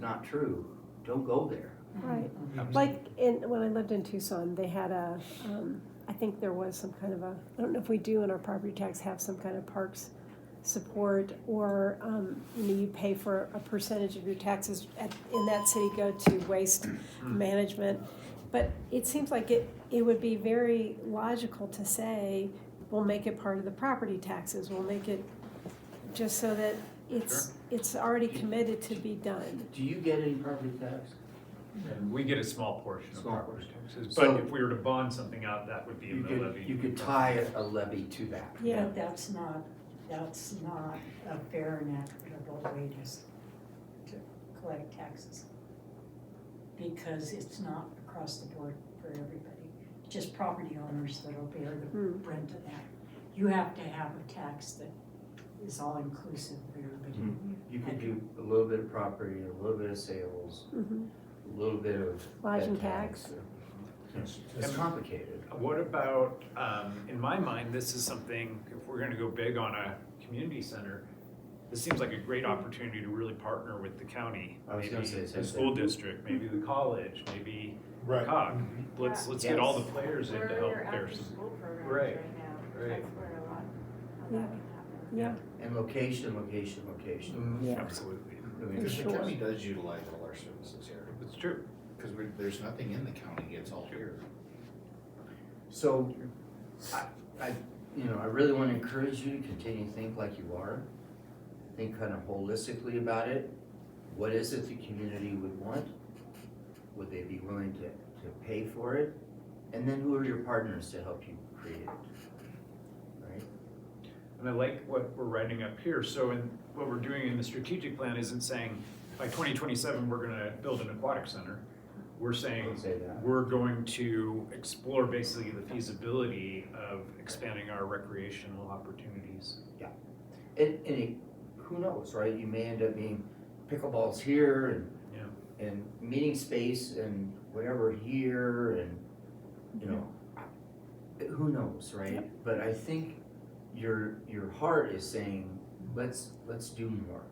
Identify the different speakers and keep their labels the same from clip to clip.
Speaker 1: not true, don't go there.
Speaker 2: Right,
Speaker 3: I'm s-
Speaker 2: like in, when I lived in Tucson, they had a, um, I think there was some kind of a, I don't know if we do in our property tax have some kind of parks support or, um, you know, you pay for a percentage of your taxes at, in that city go to waste management. But it seems like it, it would be very logical to say, we'll make it part of the property taxes, we'll make it just so that it's, it's already committed to be done.
Speaker 1: Do you get any property tax?
Speaker 3: And we get a small portion of
Speaker 1: Small
Speaker 3: property taxes,
Speaker 1: So-
Speaker 3: but if we were to bond something out, that would be a
Speaker 1: You could,
Speaker 3: levy.
Speaker 1: you could tie a levy to that.
Speaker 2: Yeah,
Speaker 4: But that's not, that's not a fair and equitable way to, s- to collect taxes. Because it's not across the board for everybody, just property owners that'll bear the
Speaker 2: Hmm.
Speaker 4: brunt of that. You have to have a tax that is all inclusive for everybody.
Speaker 3: Mm-hmm.
Speaker 1: You could do a little bit of property, a little bit of sales,
Speaker 2: mhm.
Speaker 1: a little bit of.
Speaker 2: Lodging
Speaker 1: pet
Speaker 2: tax.
Speaker 1: It's it's complicated.
Speaker 3: What about, um, in my mind, this is something, if we're gonna go big on a community center, this seems like a great opportunity to really partner with the county.
Speaker 1: I was gonna
Speaker 3: maybe
Speaker 1: say the same
Speaker 3: The school
Speaker 1: thing.
Speaker 3: district, maybe the college, maybe
Speaker 5: Right.
Speaker 3: COG.
Speaker 1: Mm-hmm.
Speaker 3: Let's, let's get all the players in
Speaker 6: Where
Speaker 3: to
Speaker 6: are
Speaker 3: help
Speaker 6: your
Speaker 3: bear some.
Speaker 6: after-school programs
Speaker 3: Right,
Speaker 6: right now?
Speaker 3: right.
Speaker 6: That's where a lot of
Speaker 2: Yeah.
Speaker 6: that can happen.
Speaker 2: yeah.
Speaker 1: And location, location, location.
Speaker 2: Yeah.
Speaker 3: Absolutely.
Speaker 1: I mean,
Speaker 5: Because the
Speaker 2: Sure.
Speaker 5: county does utilize all our services here,
Speaker 3: It's true.
Speaker 5: because we're, there's nothing in the county, it's all here.
Speaker 1: So, I, I, you know, I really wanna encourage you to continue to think like you are. Think kind of holistically about it. What is it the community would want? Would they be willing to, to pay for it? And then who are your partners to help you create it? Right?
Speaker 3: And I like what we're writing up here, so in, what we're doing in the strategic plan isn't saying, by twenty twenty-seven, we're gonna build an aquatic center. We're saying,
Speaker 1: Don't say that.
Speaker 3: we're going to explore basically the feasibility of expanding our recreational opportunities.
Speaker 1: And, and it, who knows, right? You may end up being pickleballs here and.
Speaker 3: Yeah.
Speaker 1: And meeting space and whatever here and, you know, I- who knows, right? But I think your, your heart is saying, let's, let's do more.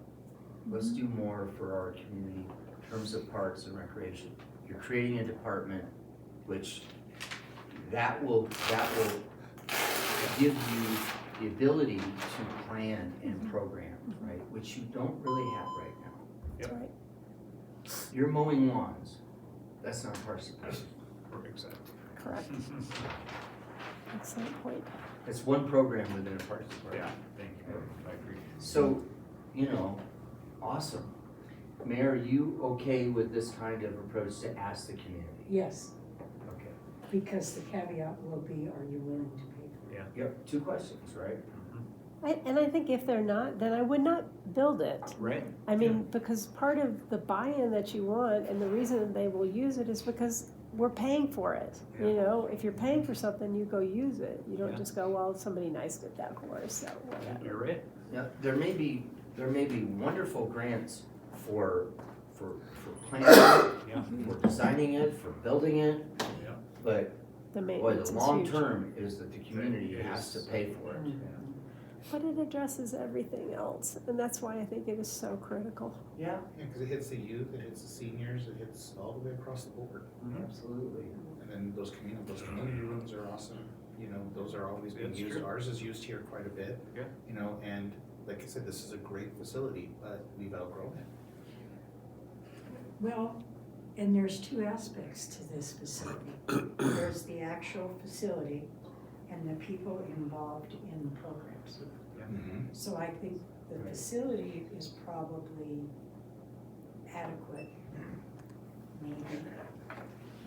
Speaker 1: Let's do more for our community in terms of parks and recreation. You're creating a department which that will, that will give you the ability to plan and program, right? Which you don't really have right now.
Speaker 2: That's right.
Speaker 1: You're mowing lawns. That's not parks and Rec.
Speaker 3: Or Exactly.
Speaker 2: Correct, excellent point.
Speaker 1: It's one program within a parks and Rec.
Speaker 3: Yeah, thank you, I agree.
Speaker 1: So, you know, awesome. Mayor, are you okay with this kind of approach to ask the community?
Speaker 4: Yes,
Speaker 1: Okay.
Speaker 4: because the caveat will be, are you willing to pay for
Speaker 1: Yep, two questions, right?
Speaker 3: Mm-hmm.
Speaker 2: I, and I think if they're not, then I would not build it.
Speaker 3: Right?
Speaker 2: I mean, because part of the buy-in that you want and the reason that they will use it is because we're paying for it. You know, if you're paying for something, you go use it. You don't
Speaker 3: Yeah.
Speaker 2: just go, well, somebody nice did that for us, so whatever.
Speaker 3: You're right.
Speaker 1: Now, there may be, there may be wonderful grants for, for, for planning,
Speaker 3: Yeah,
Speaker 5: Mm-hmm.
Speaker 1: for designing it, for building it.
Speaker 3: Yeah.
Speaker 1: But Boy,
Speaker 2: The
Speaker 1: the
Speaker 2: maintenance is
Speaker 1: long
Speaker 2: huge.
Speaker 1: term is that the community
Speaker 3: It
Speaker 1: has to
Speaker 3: is.
Speaker 1: pay for it.
Speaker 4: it?
Speaker 2: But it addresses everything else, and that's why I think it is so critical.
Speaker 1: Yeah,
Speaker 5: Yeah, because it hits the youth, it hits the seniors, it hits all the way across the board.
Speaker 3: Mm-hmm.
Speaker 1: absolutely.
Speaker 5: And then those community, those community rooms are awesome, you know, those are always being
Speaker 3: That's
Speaker 5: used,
Speaker 3: true.
Speaker 5: ours is used here quite a bit.
Speaker 3: Yeah.
Speaker 5: You know, and like I said, this is a great facility, but we've outgrown it.
Speaker 4: Well, and there's two aspects to this facility. There's the actual facility and the people involved in the programs.
Speaker 5: Mm-hmm.
Speaker 4: So I think the facility is probably adequate, maybe.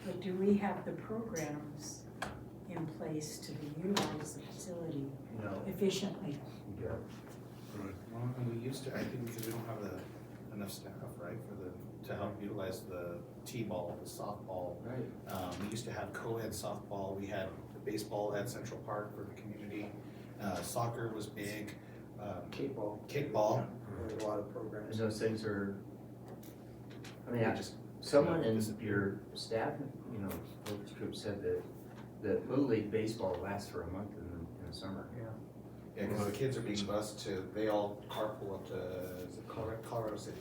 Speaker 4: But do we have the programs in place to utilize the facility
Speaker 1: No,
Speaker 4: efficiently?
Speaker 1: yeah.
Speaker 5: Well, and we used to, I think because we don't have the, enough staff, right, for the, to help utilize the T-ball, the softball.
Speaker 1: Right.
Speaker 5: Um, we used to have co-ed softball, we had baseball at Central Park for the community, uh, soccer was big, um,
Speaker 1: Kickball.
Speaker 5: kickball, there was a lot of programs.
Speaker 1: Those things are, I
Speaker 5: We
Speaker 1: mean, I-
Speaker 5: just-
Speaker 1: someone in
Speaker 5: Disappear.
Speaker 1: your staff, you know, focus group said that, that Little League baseball lasts for a month in the, in the summer.
Speaker 5: Yeah, because the kids are being bused to, they all carpool up to, is it Colorado, Colorado City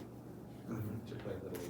Speaker 5: to play Little League.